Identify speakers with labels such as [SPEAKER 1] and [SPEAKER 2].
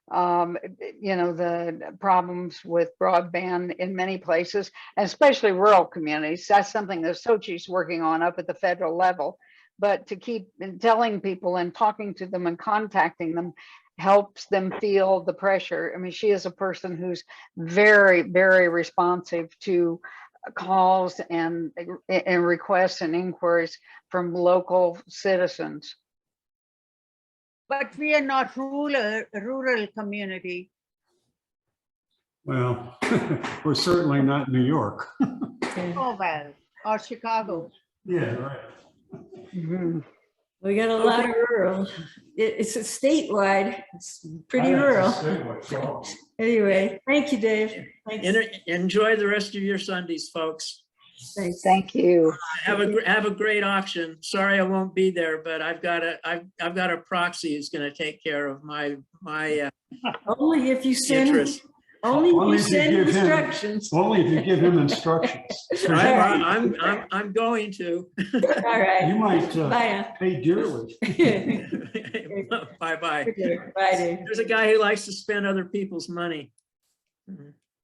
[SPEAKER 1] um, you know, the problems with broadband in many places, especially rural communities. That's something that Sochi's working on up at the federal level. But to keep eh, telling people and talking to them and contacting them helps them feel the pressure. I mean, she is a person who's very, very responsive to calls and, eh, and requests and inquiries from local citizens.
[SPEAKER 2] But we are not rural, rural community.
[SPEAKER 3] Well, we're certainly not New York.
[SPEAKER 2] Oh, well, or Chicago.
[SPEAKER 3] Yeah, right.
[SPEAKER 1] Mhm.
[SPEAKER 4] We got a lot of rural. It, it's a statewide, it's pretty rural. Anyway, thank you, Dave. Thanks.
[SPEAKER 5] En- Enjoy the rest of your Sundays, folks.
[SPEAKER 4] Thanks.
[SPEAKER 1] Thank you.
[SPEAKER 5] Have a, gr- have a great auction. Sorry I won't be there, but I've got a, I've, I've got a proxy who's gonna take care of my, my uh,
[SPEAKER 4] Only if you send,
[SPEAKER 5] interest.
[SPEAKER 4] only
[SPEAKER 3] Only
[SPEAKER 4] if
[SPEAKER 3] if you
[SPEAKER 4] you send
[SPEAKER 3] give him-
[SPEAKER 4] instructions. All
[SPEAKER 3] Only if you give him instructions.
[SPEAKER 5] I'm, I'm, I'm, I'm going to.
[SPEAKER 4] right.
[SPEAKER 3] You might uh,
[SPEAKER 4] Bye.
[SPEAKER 3] pay dearly.
[SPEAKER 4] now.
[SPEAKER 5] Bye-bye.
[SPEAKER 4] Bye, Dave.
[SPEAKER 5] There's a guy who likes to spend other people's money.